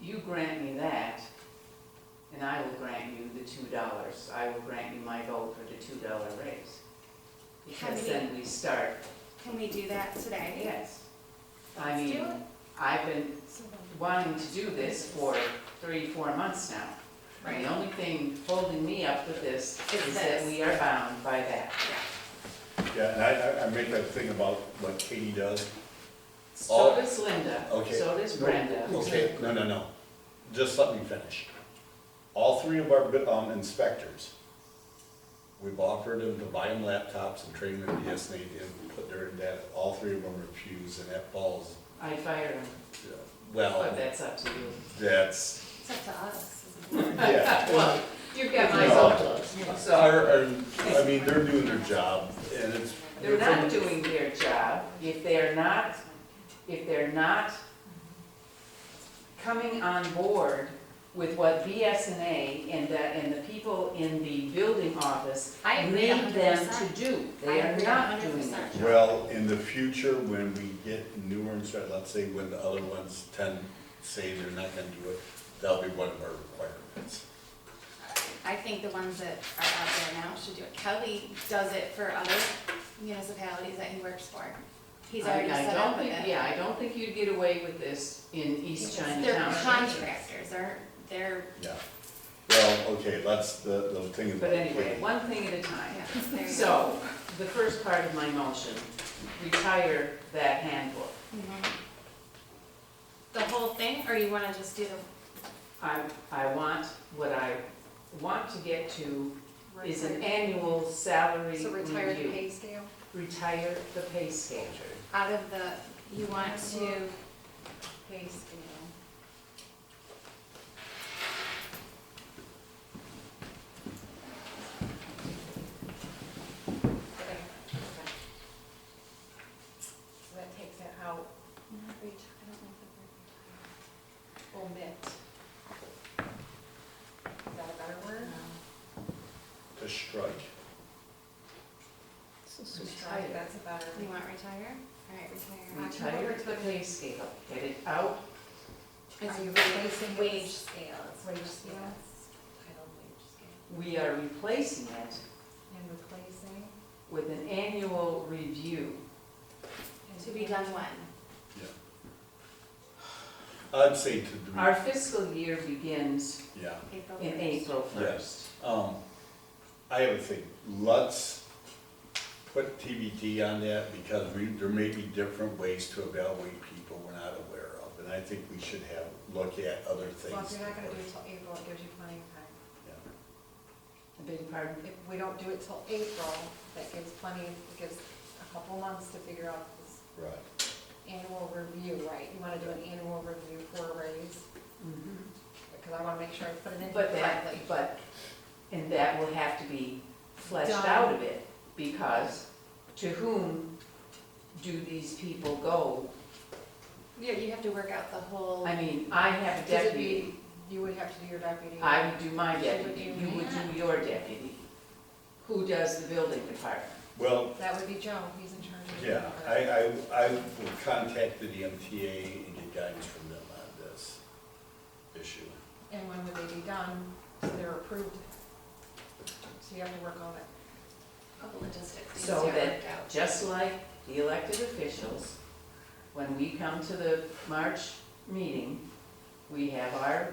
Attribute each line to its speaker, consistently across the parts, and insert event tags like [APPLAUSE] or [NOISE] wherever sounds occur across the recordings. Speaker 1: you grant me that, and I will grant you the two dollars. I will grant you my vote for the two dollar raise. Because
Speaker 2: Can we-
Speaker 1: then we start,
Speaker 2: Can we do that today?
Speaker 1: yes. I
Speaker 2: Let's do
Speaker 1: mean,
Speaker 2: it.
Speaker 1: I've been wanting to do this for three, four months now. And
Speaker 2: Right.
Speaker 1: the only thing holding me up with this
Speaker 2: Is
Speaker 1: is that
Speaker 2: this.
Speaker 1: we are bound by that.
Speaker 3: Yeah, and I, I, I make that thing about what Katie does.
Speaker 1: So
Speaker 3: Oh.
Speaker 1: does Linda,
Speaker 3: Okay.
Speaker 1: so does Brenda.
Speaker 3: Okay, no, no, no, just let me finish. All three of our, bid- um, inspectors, we've offered them to buy them laptops and train them, yes, they did, put their data, all three of them refused, and that falls,
Speaker 1: I fire them,
Speaker 3: uh,
Speaker 1: but
Speaker 3: well,
Speaker 1: that's up to you.
Speaker 3: that's,
Speaker 2: It's up to us. isn't
Speaker 1: [LAUGHS]
Speaker 2: it?
Speaker 3: yeah.
Speaker 1: Well, you've got my
Speaker 3: No.
Speaker 1: vote, so
Speaker 3: Our- our- I mean, they're doing their job, and it's.
Speaker 1: they're not doing their job if they're not, if they're not coming on board with what BSNA and the, and the people in the building office
Speaker 2: I agree a
Speaker 1: need
Speaker 2: hundred
Speaker 1: them
Speaker 2: percent.
Speaker 1: to do.
Speaker 2: I
Speaker 1: They are
Speaker 2: agree a
Speaker 1: not
Speaker 2: hundred
Speaker 1: doing that.
Speaker 2: percent.
Speaker 3: Well, in the future, when we get newer inspectors, let's say when the other ones tend, say they're not gonna do it, that'll be one of our requirements.
Speaker 2: I think the ones that are out there now should do it. Kelly does it for other municipalities that he works for. He's already
Speaker 1: I- I
Speaker 2: set
Speaker 1: don't
Speaker 2: up with
Speaker 1: think-
Speaker 2: it.
Speaker 1: Yeah, I don't think you'd get away with this in East Chinatown.
Speaker 2: They're contractors, they're, they're,
Speaker 3: Yeah. Well, okay, that's the, the thing. is-
Speaker 1: But anyway, one thing at a time.
Speaker 2: yeah, they're.
Speaker 1: So, the first part of my motion, retire that handbook.
Speaker 2: Mhm. The whole thing, or you wanna just do the?
Speaker 1: I, I want, what I want to get to is an annual salary
Speaker 4: So retire the
Speaker 1: review.
Speaker 4: pay scale?
Speaker 1: Retire the pay scale.
Speaker 2: out of the, you want to,
Speaker 4: Pay scale. So that takes it out, omit. Is that a better word?
Speaker 3: To strike.
Speaker 4: Strike, That's a better.
Speaker 2: you want retire? All right, retire.
Speaker 1: Retire the pay scale, get it out.
Speaker 2: Is
Speaker 4: Are you
Speaker 2: you
Speaker 4: replacing it with-
Speaker 2: wage scale?
Speaker 4: It's wage scale. Title wage scale.
Speaker 1: We are replacing it
Speaker 4: And replacing.
Speaker 1: with an annual review.
Speaker 2: To be done when?
Speaker 3: I'd say to do,
Speaker 1: Our fiscal year begins
Speaker 3: yeah.
Speaker 2: April
Speaker 1: in
Speaker 2: 1st.
Speaker 1: April first.
Speaker 3: Yes. Um, I have a thing, let's put TBD on that because we, there may be different ways to evaluate people we're not aware of. And I think we should have, look at other things.
Speaker 4: Well, if you're not gonna do it till April, it gives you plenty of time.
Speaker 3: Yeah.
Speaker 1: I beg your pardon?
Speaker 4: If we don't do it till April, that gives plenty, it gives a couple months to figure out this
Speaker 3: Right.
Speaker 4: annual review, right? You wanna do an annual review for a raise,
Speaker 1: Mhm.
Speaker 4: because I wanna make sure I put it in
Speaker 1: But that,
Speaker 4: correctly.
Speaker 1: but, and that will have to be fleshed
Speaker 4: Done.
Speaker 1: out a bit, because to whom do these people go?
Speaker 2: Yeah, you have to work out the whole,
Speaker 1: I mean, I have a
Speaker 4: Because it'd
Speaker 1: deputy,
Speaker 4: be- You would have to do your deputy.
Speaker 1: I would do my
Speaker 4: She would
Speaker 1: deputy,
Speaker 4: do
Speaker 1: you would do your deputy. Who does the building department?
Speaker 3: Well,
Speaker 4: That would be Joe, he's in charge of.
Speaker 3: Yeah, I, I, I will contact the MTA and get guidance from them on this issue.
Speaker 4: And when would they be done, so they're approved? So you have to work on it.
Speaker 2: couple logistics. things
Speaker 1: So
Speaker 2: to
Speaker 1: that-
Speaker 2: work out.
Speaker 1: Just like the elected officials, when we come to the March meeting, we have our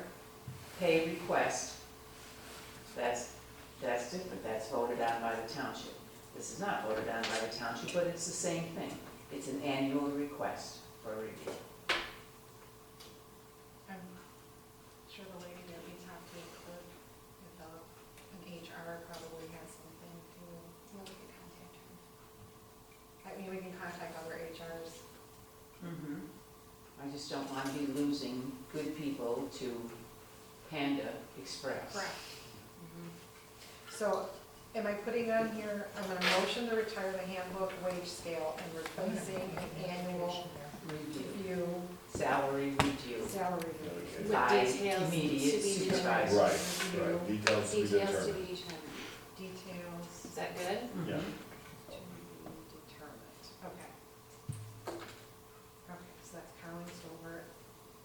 Speaker 1: pay request. That's, that's different, that's voted on by the township. This is not voted on by the township, but it's the same thing. It's an annual request for review.
Speaker 4: I'm sure the lady that we talked to, clerk, about an HR probably has something to,
Speaker 2: We'll get contact.
Speaker 4: I mean, we can contact other HRs.
Speaker 1: I just don't want to be losing good people to Panda Express.
Speaker 4: Correct.
Speaker 1: Mm-hmm.
Speaker 4: So am I putting on here, I'm gonna motion to retire the handbook wage scale and replacing an annual
Speaker 1: Review,
Speaker 4: review,
Speaker 1: salary review.
Speaker 4: salary review.
Speaker 3: Okay.
Speaker 2: With
Speaker 1: By
Speaker 2: details to
Speaker 1: immediate
Speaker 2: be determined.
Speaker 1: supervisor.
Speaker 3: Right, right, details to be
Speaker 2: Details to
Speaker 3: determined.
Speaker 2: be determined. Mm-hmm.